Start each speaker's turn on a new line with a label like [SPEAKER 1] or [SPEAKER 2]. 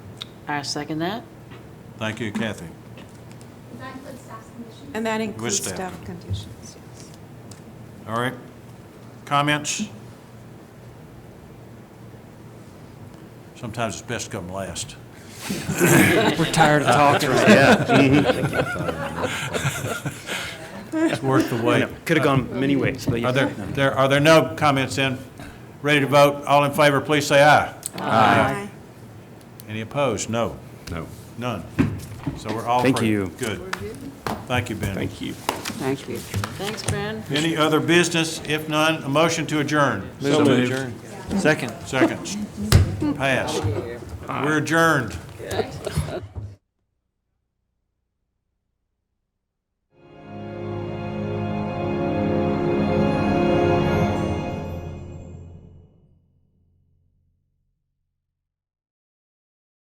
[SPEAKER 1] I second that.
[SPEAKER 2] Thank you, Kathy.
[SPEAKER 3] That includes staff's condition.
[SPEAKER 4] And that includes
[SPEAKER 2] staff.
[SPEAKER 4] staff conditions, yes.
[SPEAKER 2] All right. Comments? Sometimes it's best to come last.
[SPEAKER 5] We're tired of talking.
[SPEAKER 2] It's worth the wait.
[SPEAKER 6] Could have gone many ways, but
[SPEAKER 2] Are
[SPEAKER 6] yeah.
[SPEAKER 2] there, there, are there no comments then? Ready to vote? All in favor, please say aye.
[SPEAKER 4] Aye.
[SPEAKER 2] Any opposed? No.
[SPEAKER 6] No.
[SPEAKER 2] None. So we're all
[SPEAKER 6] Thank
[SPEAKER 2] free.
[SPEAKER 6] you.
[SPEAKER 2] Good. Thank you, Ben.
[SPEAKER 6] Thank you.
[SPEAKER 7] Thank you.
[SPEAKER 1] Thanks, Ben.
[SPEAKER 2] Any other business? If none, a motion to adjourn.
[SPEAKER 5] So moved. Second.
[SPEAKER 2] Seconds. Pass. We're adjourned.